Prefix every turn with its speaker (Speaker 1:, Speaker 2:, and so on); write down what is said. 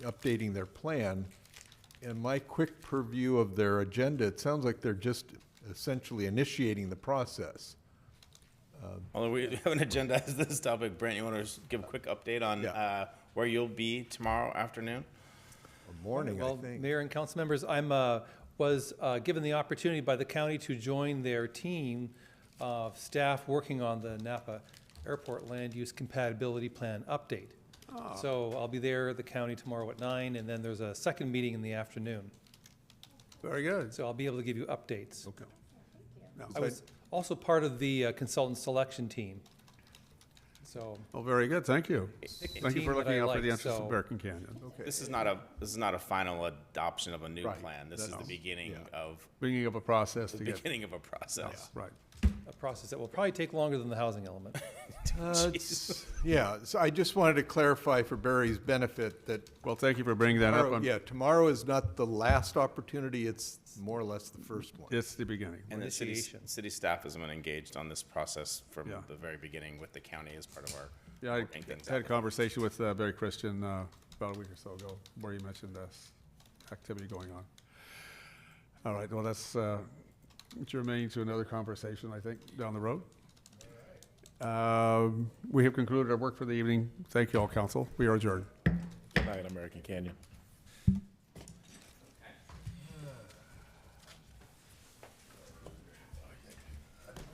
Speaker 1: updating their plan. And my quick purview of their agenda, it sounds like they're just essentially initiating the process.
Speaker 2: Although we haven't agendized this topic, Brent, you want to give a quick update on
Speaker 1: Yeah.
Speaker 2: uh, where you'll be tomorrow afternoon?
Speaker 1: or Morning, I
Speaker 3: Well,
Speaker 1: think.
Speaker 3: Mayor and council members, I'm, uh, was uh, given the opportunity by the county to join their team of staff working on the Napa Airport Land Use Compatibility Plan update.
Speaker 1: Ah.
Speaker 3: So I'll be there at the county tomorrow at nine, and then there's a second meeting in the afternoon.
Speaker 4: Very good.
Speaker 3: So I'll be able to give you updates.
Speaker 4: Okay. Now,
Speaker 3: I was also part of the uh, consultant selection team. So,
Speaker 4: Well, very good, thank you. Thank you
Speaker 3: team
Speaker 4: for
Speaker 3: that I
Speaker 4: looking out for
Speaker 3: like,
Speaker 4: the interests of
Speaker 3: so-
Speaker 4: Bear Canyon.
Speaker 1: Okay,
Speaker 2: This is not a, this is not a final adoption of a new
Speaker 1: Right.
Speaker 2: plan. This is the
Speaker 1: That's-
Speaker 2: beginning
Speaker 1: yeah.
Speaker 2: of,
Speaker 4: Bringing up a process to get,
Speaker 2: beginning of a process.
Speaker 4: right.
Speaker 3: a process that will probably take longer than the housing element.
Speaker 1: Uh, it's- Yeah, so I just wanted to clarify for Barry's benefit that,
Speaker 4: Well, thank you for bringing that up.
Speaker 1: tomorrow-
Speaker 4: I'm-
Speaker 1: yeah, tomorrow is not the last opportunity, it's more or less the first one.
Speaker 4: It's the beginning.
Speaker 2: And the city,
Speaker 3: Initiation.
Speaker 2: city staff has been engaged on this process from
Speaker 4: Yeah.
Speaker 2: the very beginning with the county as part of our.
Speaker 4: Yeah, I
Speaker 2: working things out.
Speaker 4: had a conversation with uh, Barry Christian uh, about a week or so ago, where he mentioned this activity going on. All right, well, that's uh, germane to another conversation, I think, down the road. Um, We have concluded our work for the evening. Thank you all, council. We are adjourned.
Speaker 5: Not in American Canyon.